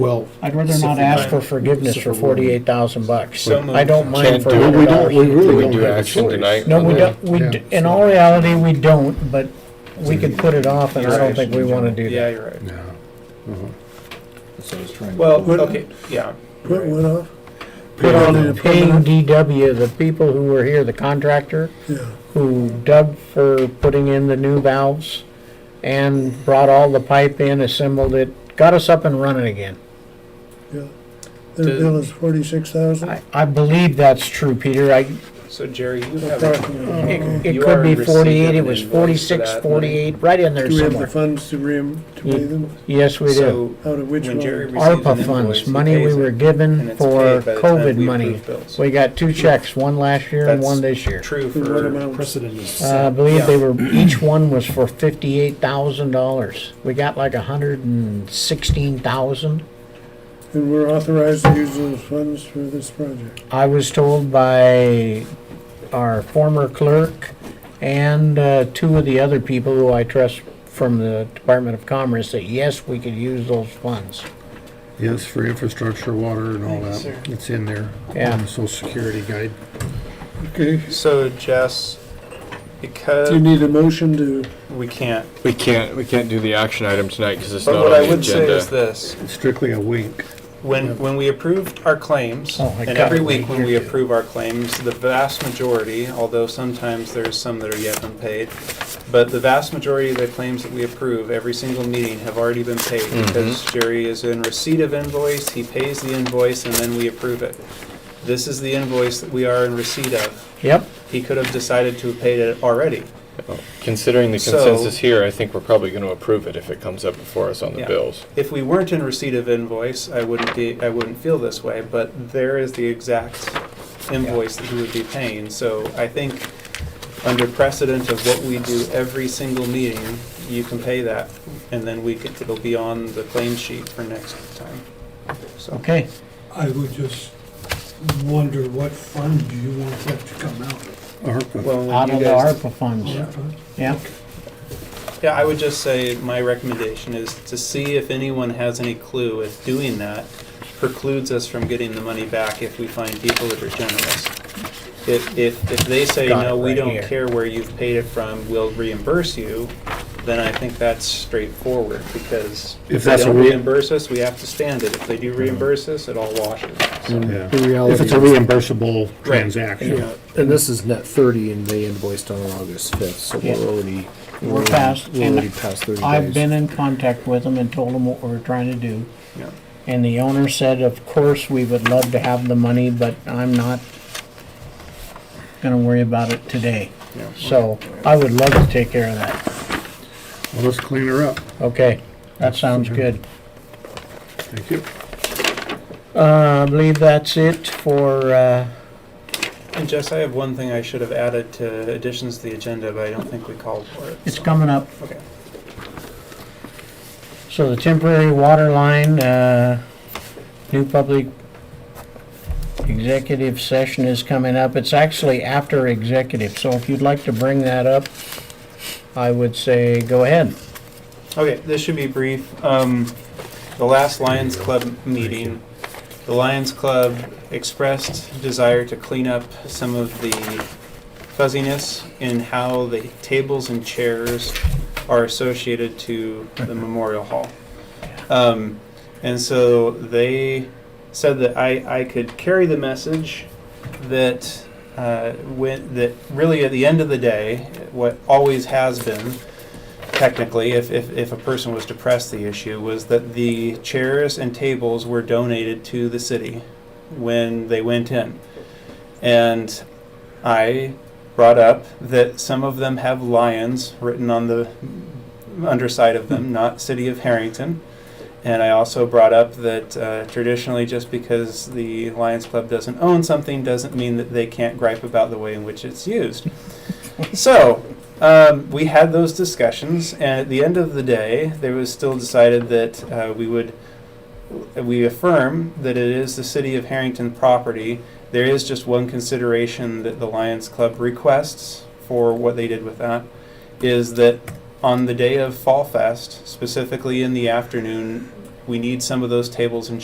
Well, I'd rather not ask for forgiveness for forty-eight thousand bucks. I don't mind Can't for do it. we don't, we $100. really We don't do have a action choice. tonight. No, we don't, we, Yeah. d- in all reality, we don't, but we could put it off, and I don't think we wanna do Yeah, that. you're right. No. So I was trying to. Well, What- okay, yeah. What went off? Put on Yeah. paying DW, the people who were here, the contractor, Yeah, who dug for putting in the new valves, and brought all the pipe in, assembled it, got us up and running again. yeah. Their bill is forty-six thousand? I, I believe that's true, Peter, I, So Jerry, you have, Approximately. it, You it are could in be receipt of forty-eight, it an was invoice for forty-six, that, forty-eight, right in there Do we have the somewhere. Mm. funds to ream, to pay them? Yes, we do. so Out of which when Jerry one? receives an ARPA invoice, funds, he money we pays it, were and given it's for paid by the time COVID we money. approve bills. We got two checks, one last year and That's one this year. True For what for, amount? Precedent is. Uh, I believe they were, each one was for fifty-eight thousand dollars. We got like a hundred and sixteen thousand. And we're authorized to use those funds for this project. I was told by our former clerk and uh, two of the other people who I trust from the Department of Commerce that yes, we could use those funds. Yes, for infrastructure, water and all that. It's in there. Yeah. on the Social Security guide. Okay, so Jess, do you because need a motion to, we can't. We can't, we can't do the action item tonight because it's not But on what I the would say is agenda. this, It's strictly a wink. when, when we approved our claims, Oh, I and got every it right week when here, we too. approve our claims, the vast majority, although sometimes there's some that are yet unpaid, but the vast majority of the claims that we approve every single meeting have already been paid because Jerry is in receipt of invoice, he pays the invoice, and then we approve it. This is the invoice that we are in receipt of. Yep, He could have decided to have paid it already. Considering the So- consensus here, I think we're probably going to approve it if it comes up before us on the Yeah. bills. If we weren't in receipt of invoice, I wouldn't be, I wouldn't feel this way, but there is the exact invoice that he would be paying. So I think under precedent of what we do every single meeting, you can pay that. And then we could, it'll be on the claim sheet for next time. So, okay. I would just wonder what fund do you want that to come out of? ARPA. well, Out when of you the guys, ARPA funds, ARPA? yeah. yeah, I would just say my recommendation is to see if anyone has any clue if doing that precludes us from getting the money back if we find people that are generous. If, if, if they say, Got it no, we right don't here. care where you've paid it from, we'll reimburse you, then I think that's straightforward, because if If they that's a don't re- reimburse us, we have to stand it. If they do reimburse us, it all washes. So, Yeah. If it's a reimbursable transaction. Yeah, and this is net thirty and they invoiced on August fifth, so Yeah. we're already. We're past, We're and already past thirty days. I've been in contact with them and told them what we're trying to do. Mm-hmm. yeah. And the owner said, of course, we would love to have the money, but I'm not gonna worry about it today. Yeah. So I would love to take care of that. Well, let's clean her up. Okay, that sounds good. Thank you. Uh, I believe that's it for, uh, And Jess, I have one thing I should have added to additions to the agenda, but I don't think we called for it. it's so- coming up. Okay. So the temporary water line, uh, new public executive session is coming up. It's actually after executive, so if you'd like to bring that up, I would say go ahead. Okay, this should be brief. Um, the last Lions Club meeting, the Lions Club expressed desire to clean up some of the fuzziness in how the tables and chairs are associated to the Memorial Hall. Um, and so they said that I, I could carry the message that uh, when, that really at the end of the day, what always has been technically, if, if, if a person was to press the issue, was that the chairs and tables were donated to the city when they went in. And I brought up that some of them have lions written on the underside of them, not City of Harrington. And I also brought up that uh, traditionally, just because the Lions Club doesn't own something, doesn't mean that they can't gripe about the way in which it's used. so um, we had those discussions, and at the end of the day, there was still decided that uh, we would we affirm that it is the city of Harrington property. There is just one consideration that the Lions Club requests for what they did with that is that on the day of Fall Fest, specifically in the afternoon, we need some of those tables and